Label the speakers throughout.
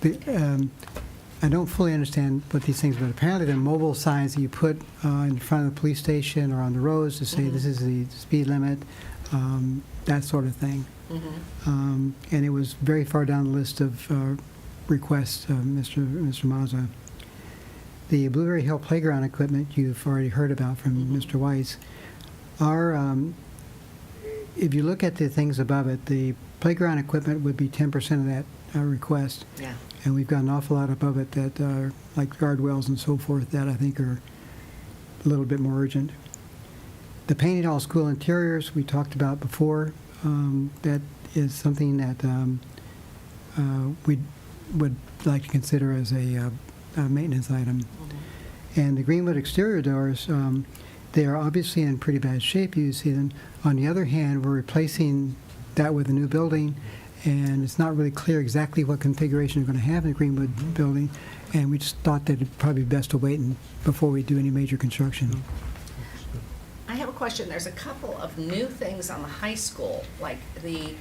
Speaker 1: the, um, I don't fully understand what these things, but apparently they're mobile signs that you put uh, in front of the police station or on the roads to say this is the speed limit, um, that sort of thing. Um, And it was very far down the list of uh, requests, uh, Mr. Mr. Mazza. The Blueberry Hill Playground equipment you've already heard about from Mr. Weiss. Our, um, if you look at the things above it, the playground equipment would be 10% of that uh, request.
Speaker 2: Yeah.
Speaker 1: And we've got an awful lot above it that are, like guard wells and so forth, that I think are a little bit more urgent. The painted all school interiors, we talked about before, um, that is something that um, uh, we would like to consider as a uh, a maintenance item.
Speaker 2: Mm-hmm.
Speaker 1: And the Greenwood exterior doors, um, they are obviously in pretty bad shape, you see them. On the other hand, we're replacing that with a new building, and it's not really clear exactly what configuration we're going to have in the Greenwood building, and we just thought that it'd probably be best to wait and- before we do any major construction.
Speaker 2: I have a question. There's a couple of new things on the high school, like the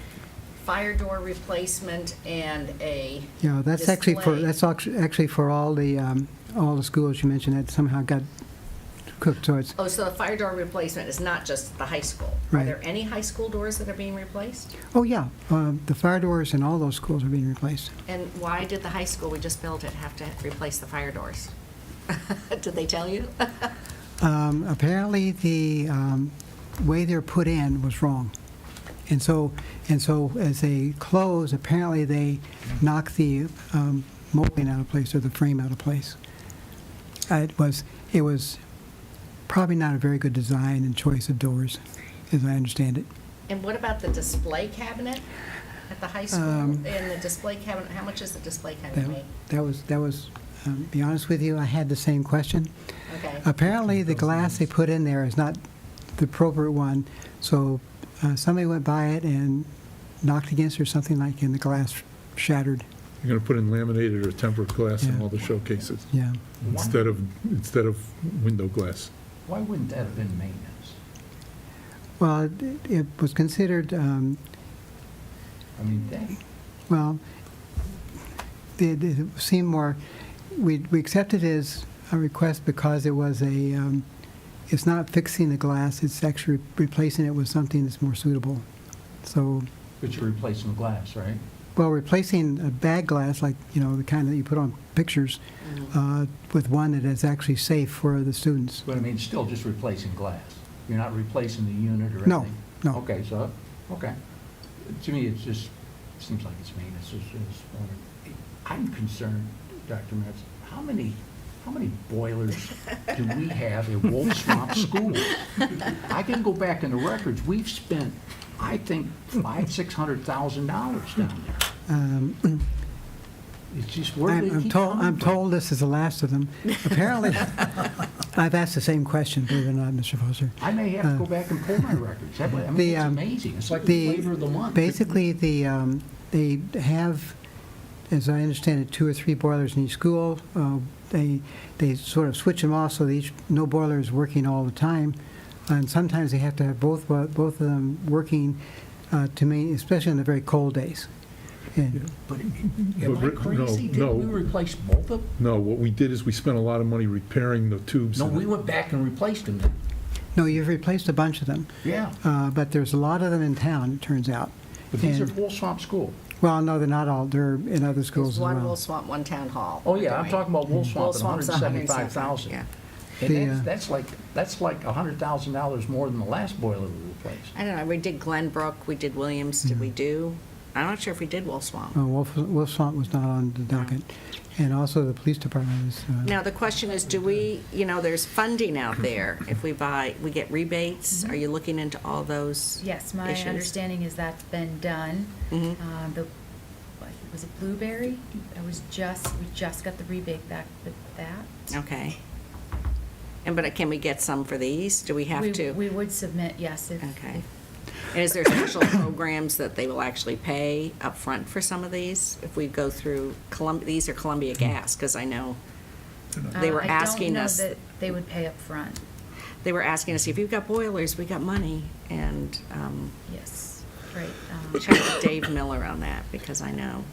Speaker 2: fire door replacement and a,
Speaker 1: Yeah, that's actually for,
Speaker 2: Display.
Speaker 1: that's actu- actually for all the, um, all the schools you mentioned that somehow got cooked, so it's,
Speaker 2: oh, so the fire door replacement is not just the high school. Are
Speaker 1: Right.
Speaker 2: there any high school doors that are being replaced?
Speaker 1: oh, yeah, uh, the fire doors in all those schools are being replaced.
Speaker 2: And why did the high school we just built it have to replace the fire doors? Did they tell you?
Speaker 1: Um, Apparently, the um, way they're put in was wrong. And so, and so as they close, apparently they knock the um, molding out of place or the frame out of place. Uh, It was, it was probably not a very good design and choice of doors, as I understand it.
Speaker 2: And what about the display cabinet at the high school?
Speaker 1: Um,
Speaker 2: And the display cabinet, how much is the display cabinet
Speaker 1: That
Speaker 2: made?
Speaker 1: that was, that was, um, be honest with you, I had the same question.
Speaker 2: Okay.
Speaker 1: Apparently, the glass they put in there is not the appropriate one, so uh, somebody went by it and knocked against it or something like, and the glass shattered,
Speaker 3: You're going to put in laminated or tempered glass in
Speaker 1: Yeah.
Speaker 3: all the showcases
Speaker 1: yeah.
Speaker 3: instead of, instead of window glass.
Speaker 4: Why wouldn't that have been maintenance?
Speaker 1: Well, it- it was considered, um,
Speaker 4: I mean, that,
Speaker 1: well, it it seemed more, we we accepted his uh, request because it was a, um, it's not fixing the glass, it's actually replacing it with something that's more suitable. So,
Speaker 4: but you're replacing glass, right?
Speaker 1: Well, replacing a bag glass, like, you know, the kind that you put on pictures,
Speaker 4: Mm-hmm.
Speaker 1: uh, with one that is actually safe for the students.
Speaker 4: But I mean, still just replacing glass. You're not replacing the unit or anything?
Speaker 1: No, no.
Speaker 4: Okay, so, okay. To me, it's just, seems like it's maintenance. It's- it's- I'm concerned, Dr. Metz, how many, how many boilers do we have at Wolf Swamp School? I can go back in the records. We've spent, I think, five, six hundred thousand dollars down there.
Speaker 1: Um,
Speaker 4: It's just, where do
Speaker 1: I'm
Speaker 4: they
Speaker 1: I'm
Speaker 4: keep
Speaker 1: told,
Speaker 4: coming
Speaker 1: I'm
Speaker 4: from?
Speaker 1: told this is the last of them. Apparently, I've asked the same question, believe it or not, Mr. Foster.
Speaker 4: I may have to go back and pull my records. That way- I
Speaker 1: The,
Speaker 4: mean, it's
Speaker 1: um,
Speaker 4: amazing. It's like
Speaker 1: the-
Speaker 4: the flavor of the month.
Speaker 1: Basically, the, um, they have, as I understand it, two or three boilers in each school. Uh, They, they sort of switch them off so that each, no boiler is working all the time. And sometimes they have to have both, bo- both of them working uh, to me, especially on the very cold days. And
Speaker 4: But
Speaker 3: But
Speaker 4: am I
Speaker 3: re- no,
Speaker 4: crazy?
Speaker 3: no.
Speaker 4: Didn't we replace both of them?
Speaker 3: No, what we did is we spent a lot of money repairing the tubes.
Speaker 4: No,
Speaker 3: and-
Speaker 4: we went back and replaced them then.
Speaker 1: No, you've replaced a bunch of them,
Speaker 4: Yeah.
Speaker 1: Uh, but there's a lot of them in town, it turns out.
Speaker 4: But these are
Speaker 1: And-
Speaker 4: Wool Swamp School.
Speaker 1: Well, no, they're not all, they're in other schools
Speaker 2: There's
Speaker 1: as
Speaker 2: one Will
Speaker 1: well.
Speaker 2: Swamp, one Town Hall.
Speaker 4: Oh, yeah, I'm talking about Wool
Speaker 2: Wool
Speaker 4: Swamp at
Speaker 2: Swamp's
Speaker 4: 175,000.
Speaker 2: 175,
Speaker 4: And
Speaker 1: The,
Speaker 4: that's,
Speaker 1: uh,
Speaker 4: that's like, that's like $100,000 more than the last boiler we replaced.
Speaker 2: I don't know, we did Glenbrook, we did Williams, did we do, I'm not sure if we did Wolf Swamp.
Speaker 1: Uh, Wolf Wolf Swamp was not on the docket. And also the police department is. uh,
Speaker 2: Now, the question is, do we, you know, there's funding out there, if we buy, we get rebates, are you looking into all those?
Speaker 5: Yes, my
Speaker 2: issues?
Speaker 5: understanding is that's been done.
Speaker 2: Mhm.
Speaker 5: Uh, The, what, was it Blueberry? I was just, we just got the rebate back with that.
Speaker 2: Okay. And, but can we get some for these, do we have
Speaker 5: We-
Speaker 2: to?
Speaker 5: We would submit, yes, if.
Speaker 2: Okay. And is there special programs that they will actually pay upfront for some of these? If we go through Columbia, these are Columbia Gas, because I know,
Speaker 5: uh,
Speaker 2: they were
Speaker 5: I
Speaker 2: asking
Speaker 5: don't know
Speaker 2: us-
Speaker 5: that they would pay up front.
Speaker 2: they were asking us, if you've got boilers, we got money. And um,
Speaker 5: yes, right. um,
Speaker 2: check with Dave Miller on that, because I know